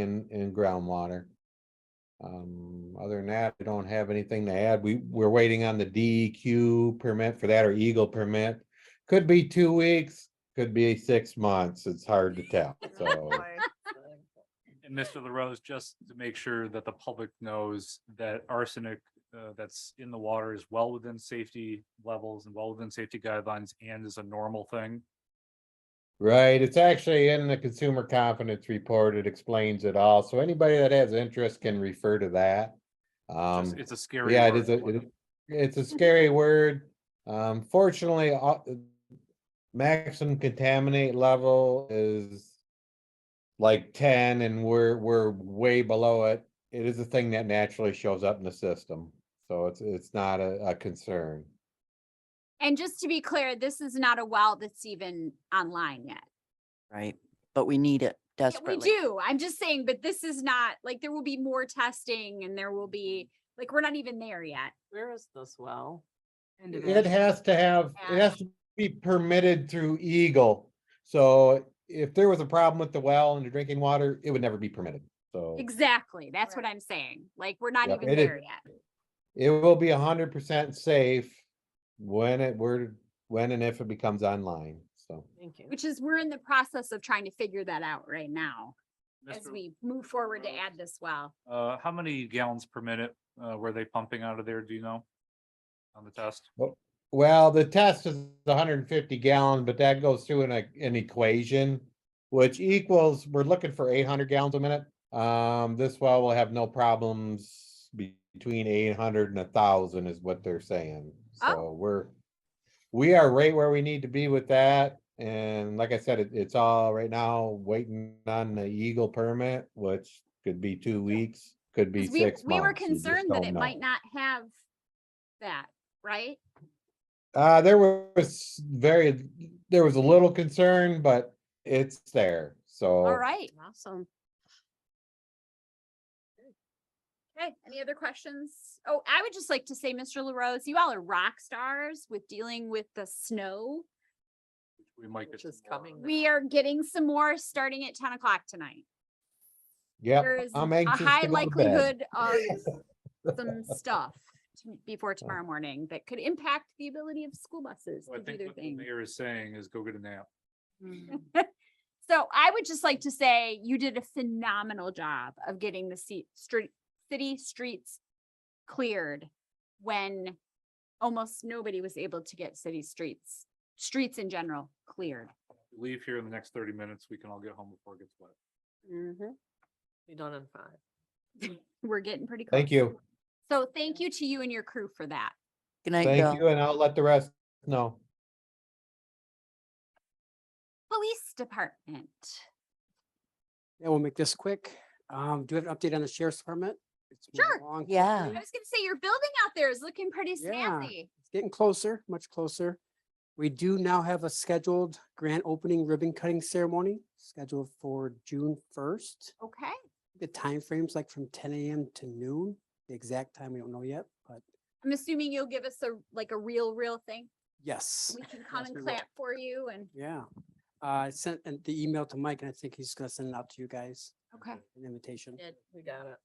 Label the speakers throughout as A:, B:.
A: in, in groundwater. Um, other than that, I don't have anything to add. We, we're waiting on the DEQ permit for that or Eagle permit. Could be two weeks, could be six months. It's hard to tell,
B: Oh,
A: so.
C: And Mr. LaRose, just to make sure that the public knows that arsenic uh, that's in the water is well within safety levels and well within safety guidelines and is a normal thing.
A: Right, it's actually in the consumer confidence report. It explains it all. So anybody that has interest can refer to that.
C: It's
A: Um,
C: just- It's a scary.
A: yeah, it
C: word
A: is a-
C: for
A: it
C: them.
A: is- it's a scary word. Um, fortunately, uh, maximum contaminate level is like ten and we're, we're way below it. It is a thing that naturally shows up in the system. So it's, it's not a, a concern.
D: And just to be clear, this is not a well that's even online yet.
E: Right, but we need it
D: Yeah, We
E: desperately.
D: do. I'm just saying, but this is not, like, there will be more testing and there will be, like, we're not even there yet.
B: Where is this well? Mm-hmm.
A: It has to have, it has to be permitted through Eagle. So if there was a problem with the well and the drinking water, it would never be permitted. So
D: Exactly. That's what
B: Right.
D: I'm saying. Like, we're not
A: Yep,
D: even
A: it is.
D: there yet.
A: it will be hundred percent safe when it were, when and if it becomes online, so.
B: Thank you.
D: Which is, we're in the process of trying to figure that out right now as
C: Mr.
D: we move forward to add this well.
C: Uh, how many gallons per minute, uh, were they pumping out of there? Do you know? On the test?
A: Well, the test is hundred and fifty gallon, but that goes through an, e- an equation, which equals, we're looking for eight hundred gallons a minute. Um, this well will have no problems be- between eight hundred and a thousand is what they're saying.
D: Oh.
A: So we're, we are right where we need to be with that. And like I said, it, it's all right now waiting on the Eagle permit, which could be two weeks, could be
D: 'Cause we,
A: six months.
D: we were
A: You just
D: concerned that
A: don't
D: it
A: know.
D: might not have that, right?
A: Uh, there was very, there was a little concern, but it's there, so.
D: All right.
B: Awesome.
D: Okay, any other questions? Oh, I would just like to say, Mr. LaRose, you all are rock stars with dealing with the snow.
C: We might get
B: Which
C: some
B: is
C: more.
B: coming.
D: We are getting some more starting at ten o'clock tonight.
A: Yep,
D: There is
A: I'm
D: a
A: anxious
D: high
A: to go to bed.
D: likelihood of some stuff to- before tomorrow morning that could impact the ability of school buses
C: So I
D: to do
C: think
D: their
C: what the
D: thing.
C: mayor is saying is go get a nap.
D: So I would just like to say you did a phenomenal job of getting the seat, street, city streets cleared when almost nobody was able to get city streets, streets in general cleared.
C: Leave here in the next thirty minutes. We can all get home before it gets wet.
B: Mm-hmm. Be done in five.
D: We're getting pretty close.
A: Thank you,
D: So thank you to you and your crew for that.
E: Good night,
A: thank
E: Bill.
A: you, and I'll let the rest know.
D: Police Department.
F: Yeah, we'll make this quick. Um, do you have an update on the sheriff's department? It's moving
D: Sure.
F: along
E: Yeah.
D: I was
F: quickly.
D: gonna say your building out there is looking pretty
F: Yeah.
D: snazzy.
F: It's getting closer, much closer. We do now have a scheduled grand opening ribbon cutting ceremony scheduled for June first.
D: Okay,
F: The time frame's like from ten AM to noon. The exact time, we don't know yet, but
D: I'm assuming you'll give us a, like a real, real thing.
F: yes.
D: We can come
F: Yes, we
D: and
F: will.
D: clap for you and,
F: Yeah. Uh, I sent an- the email to Mike and I think he's gonna send it out to you guys,
D: okay.
F: an invitation.
B: We got it.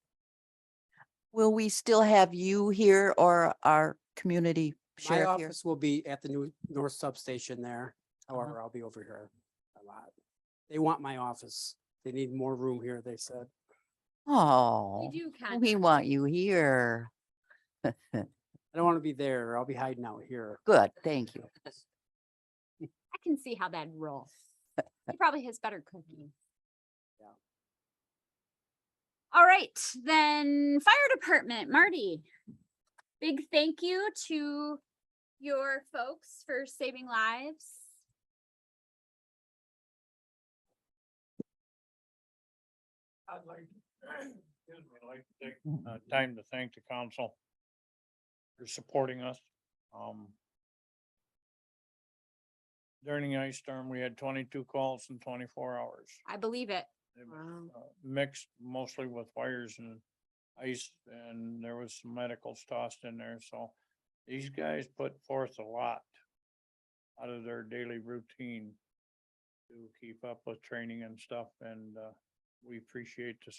E: Will we still have you here or our community
F: My
E: sheriff here? Uh-huh.
F: office will be at the new north substation there. However, I'll be over here a lot. They want my office. They need more room here, they said.
E: Oh,
D: We do
E: we
D: kind of.
E: want you here.
F: I don't want to be there. I'll be hiding out here.
E: Good, thank you.
D: I can see how that'd roll. He probably has better cooking.
F: Yeah.
D: All right, then fire department, Marty. Big thank you to your folks for saving lives.
C: I'd like, excuse me, I'd like to take uh, time to thank the council for supporting us. Um, During the ice storm, we had twenty-two calls in twenty-four hours.
D: I believe it.
C: It was,
B: Wow.
C: uh, Mixed mostly with fires and ice, and there was some medicals tossed in there, so these guys put forth a lot out of their daily routine to keep up with training and stuff, and uh, we appreciate the